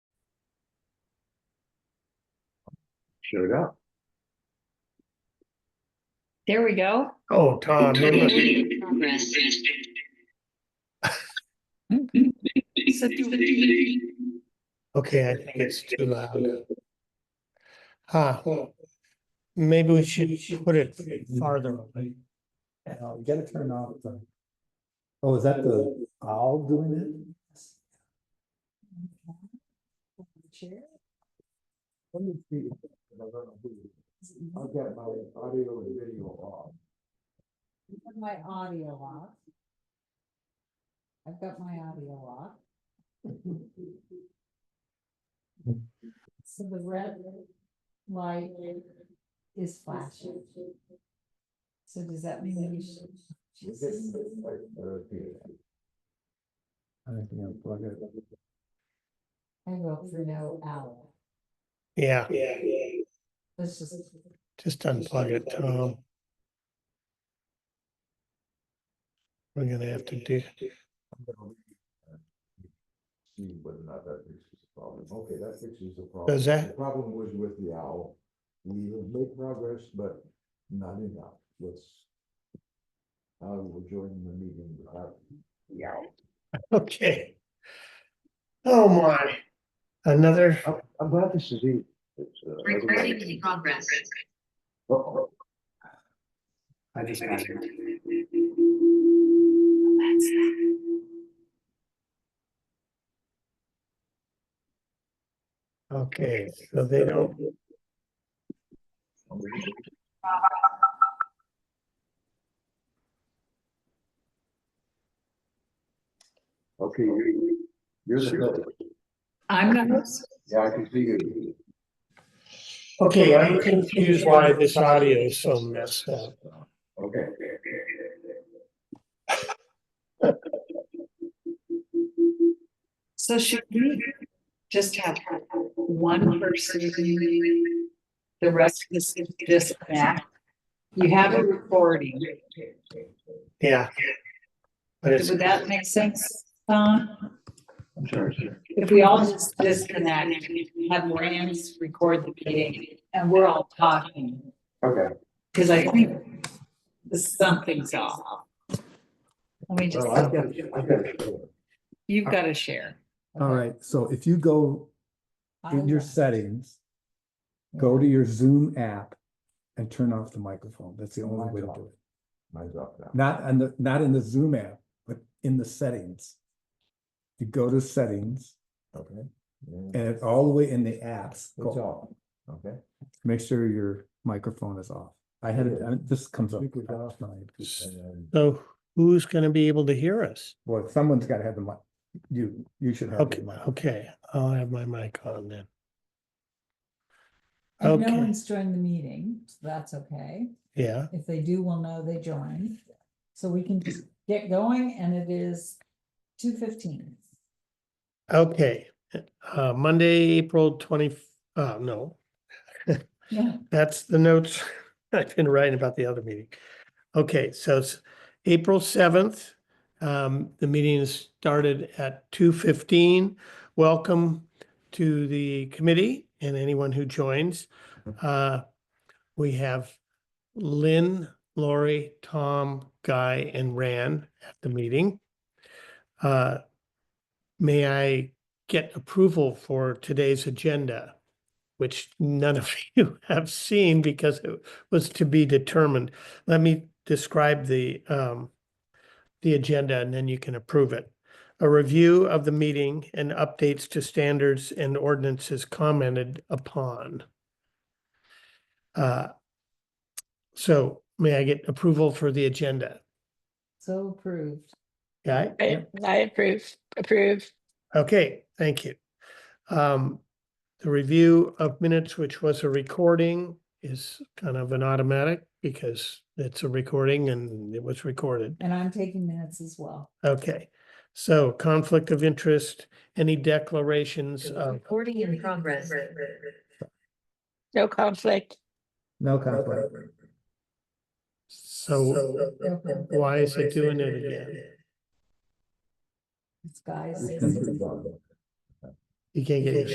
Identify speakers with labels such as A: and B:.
A: showed up.
B: There we go.
C: Oh, Tom, remember-
B: Progress.
C: okay, I think it's too loud. Huh, well, maybe we should put it farther away.
D: And I'll get it turned off. but- Oh, is that the owl doing it? Let me see. if I don't know who. I'll get my audio and video off.
E: Put My audio off. I've got my audio off. So the red light is flashing. So does that mean we should?
D: We're getting it right there, okay. I think I'll plug it.
E: I wrote for no hour.
C: Yeah,
E: Let's just.
C: just unplug it, Tom. We're gonna have to do,
D: I'm gonna leave it. See whether or not that fixes the problem. Okay, that fixes the problem.
C: Does that-
D: The problem was with the owl. We have made progress, but not enough. Let's. I will join the meeting without. Yeah.
C: okay. Oh my, another,
A: I'm, I'm glad this is easy. It's, uh, otherwise-
B: Recording in progress.
A: Oh, oh. I just.
C: okay, so they don't,
A: Okay, you- you're the host.
B: I'm the host.
A: Yeah, I can see you.
C: okay, I'm confused why this audio is so messed up.
A: Okay.
B: So should we just have one person? doing The rest of this, this back? You have a recording.
C: Yeah. But it's,
B: Would that make sense? Tom?
A: I'm sorry, sir.
B: if we all just disconnect, have Rams record the meeting and we're all talking,
A: Okay.
B: because I think something's off. Let me just,
D: Well, I've got it- I've got it.
B: you've got to share.
D: All right, so if you go in your settings, go to your Zoom app and turn off the microphone. That's the only way to do it.
A: Mine's off now.
D: Not on the, not in the Zoom app, but in the settings. You go to settings
A: Okay. Yeah,
D: and it's all the way in the apps,
A: It's
D: go,
A: off. Okay.
D: make sure your microphone is off. I had, it- uh, this comes up.
A: Speaker's off.
D: Well,
A: And then-
C: so who's gonna be able to hear us?
D: someone's gotta have the mic. You, you should have. the
C: Okay,
D: mic.
C: okay, I'll have my mic on then.
E: And no
C: Okay.
E: one's joined the meeting, so that's okay.
C: Yeah,
E: If they do, we'll know they joined. So we can just get going and it is two fifteen.
C: okay. Uh, Monday, April twenty, uh, no,
E: Yeah.
C: that's the notes I've been writing about the other meeting. Okay, so it's April seventh. Um, the meeting is started at two fifteen. Welcome to the committee and anyone who joins. Uh, we have Lynn, Lori, Tom, Guy, and Ran at the meeting. Uh, may I get approval for today's agenda? which none of you have seen because it was to be determined. Let me describe the um the agenda and then you can approve it. A review of the meeting and updates to standards and ordinances commented upon. Uh, so may I get approval for the agenda?
E: So approved.
C: Guy?
F: I I approve, approve.
C: Okay, thank you. Um, the review of minutes, which was a recording, is kind of an automatic because it's a recording and it was recorded.
E: And I'm taking minutes as well.
C: Okay, so conflict of interest, any declarations of,
B: Recording in progress.
F: No conflict.
D: No conflict.
C: so
E: Okay.
C: why is it doing it again?
E: It's guys.
D: Your computer's on.
C: You can't get your